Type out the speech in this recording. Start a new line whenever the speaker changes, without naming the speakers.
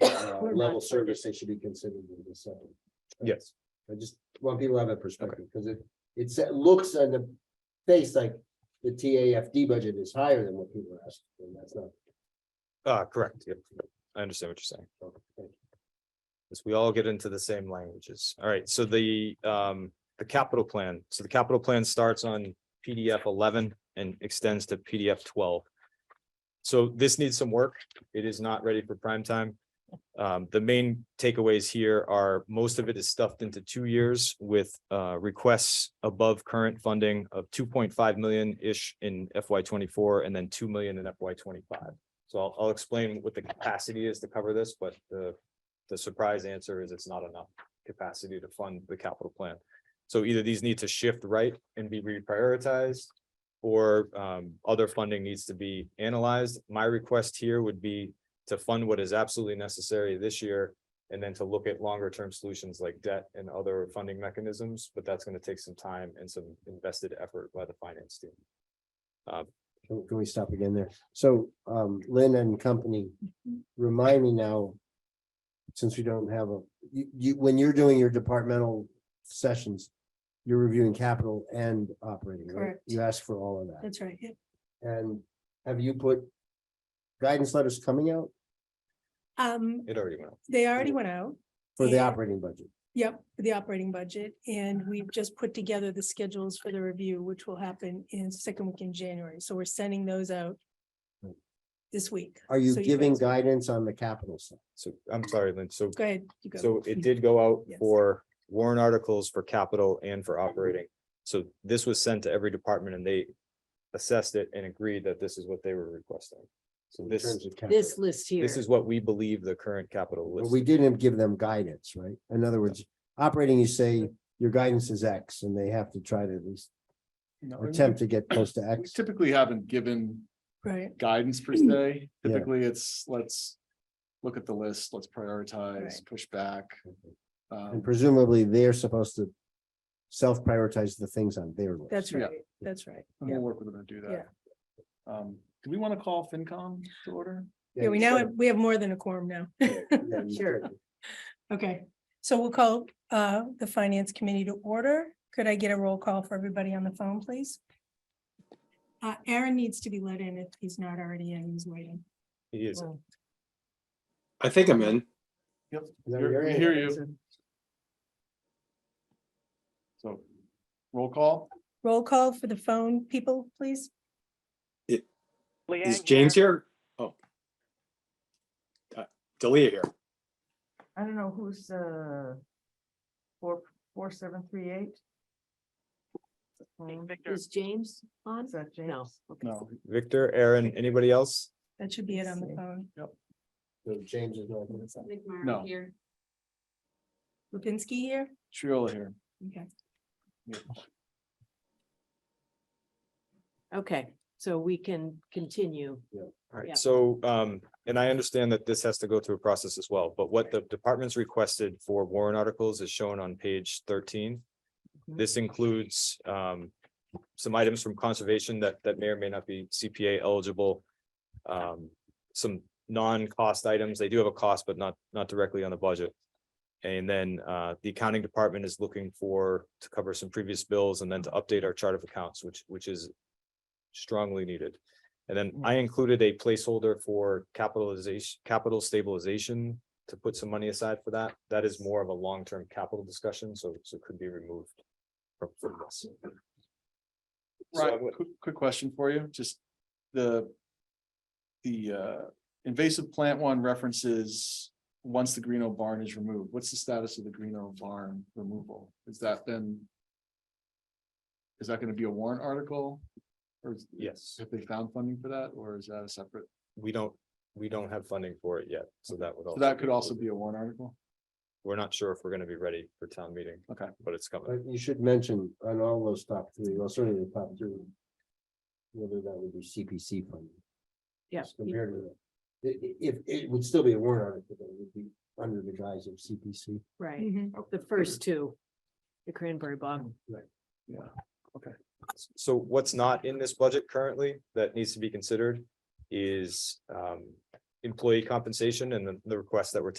uh,
We're
level
not-
service, they should be considered in the second.
Yes.
I just want people to have a perspective, because it, it's- it looks on the face like the TAFD budget is higher than what people are asking, and that's not.
Uh, correct, yep. I understand what you're saying. As we all get into the same languages. All right, so the um, the capital plan, so the capital plan starts on PDF eleven and extends to PDF twelve. So this needs some work. It is not ready for prime time. Um, the main takeaways here are most of it is stuffed into two years with uh requests above current funding of two point five million-ish in FY twenty-four and then two million in FY twenty-five. So I'll, I'll explain what the capacity is to cover this, but the, the surprise answer is it's not enough capacity to fund the capital plan. So either these need to shift right and be reprioritized, or um, other funding needs to be analyzed. My request here would be to fund what is absolutely necessary this year, and then to look at longer term solutions like debt and other funding mechanisms, but that's gonna take some time and some invested effort by the finance team.
Can can we stop again there? So um Lynn and company, remind me now. Since we don't have a, you you, when you're doing your departmental sessions, you're reviewing capital and operating, right?
Correct.
You ask for all of that.
That's right. yeah.
And have you put guidance letters coming out
Um,
It already went. up.
they already went out.
for the
Yeah.
operating budget?
Yep, for the operating budget, and we've just put together the schedules for the review, which will happen in second week in January, so we're sending those out.
Right.
This week.
Are you
So
giving
guys-
guidance on the capital side?
So I'm sorry, Lynn, so
Go ahead. you go.
So it did go out
Yes.
for warrant articles for capital and for operating. So this was sent to every department and they assessed it and agreed that this is what they were requesting. So
in
this,
terms of capital?
This list here.
this is what we believe the current capital
But
list.
we didn't give them guidance, right? In other words, operating, you say your guidance is X and they have to try to at least
No,
or
we-
attempt to get close to
we
X.
Typically haven't given
Right,
guidance per se.
Mm, Yeah.
Typically, it's let's look at the list, let's prioritize, push back.
And
Um,
presumably they're supposed to self-prioritize the things on their list.
that's
Yeah.
right, that's right.
and we'll work with them to do that. Um, do we want to call FinCom to order?
Yeah, we now, have- we have more than a quorum now.
Yeah, you
Sure.
could.
Okay, so we'll call uh the Finance Committee to order. Could I get a roll call for everybody on the phone, please? Uh, Aaron needs to be let in if he's not already in, he's waiting.
It is.
I think I'm in.
Yep.
No,
You're-
you're
We
in.
hear you. So roll call?
Roll call for the phone people, please.
Is James here? Oh. Uh, Delia here.
I don't know who's, uh, four, four, seven, three, eight? Um,
Is James on?
Is that James?
No. okay.
No.
Victor, Aaron, anybody else?
That should be it on the phone.
So James is not.
No.
Here.
Lipinski here?
Triola here.
Okay.
Okay, so we can continue.
All
Yeah.
right, so, um, and I understand that this has to go through a process as well, but what the department's requested for warrant articles is shown on page thirteen.
Mhm.
This includes, um, some items from conservation that, that may or may not be CPA eligible. Um, some non-cost items, they do have a cost, but not, not directly on the budget. And then, uh, the accounting department is looking for, to cover some previous bills and then to update our chart of accounts, which, which is strongly needed. And then I included a placeholder for capitalization, capital stabilization to put some money aside for that. That is more of a long-term capital discussion, so so it could be removed. From from this. So I
Right,
would-
quick, quick question for you, just the. The uh invasive plant one references, once the Greeno barn is removed, what's the status of the Greeno barn removal? Is that then? Is that gonna be a warrant article? Or is-
Yes,
have they found funding for that, or is that a separate,
we don't, we don't have funding for it yet, so that would.
so that could also be a warrant article?
We're not sure if we're gonna be ready for town meeting.
Okay.
But it's coming.
But you should mention on all those top three, well, certainly the top three. Whether that would be CPC funding.
Yeah.
just Compared to that. I- i- If, it would still be a warrant article, but it would be under the guise of CPC.
Right,
Mhm.
the first two, the cranberry bog.
So what's not in this budget currently that needs to be considered is um employee compensation and the the request that we're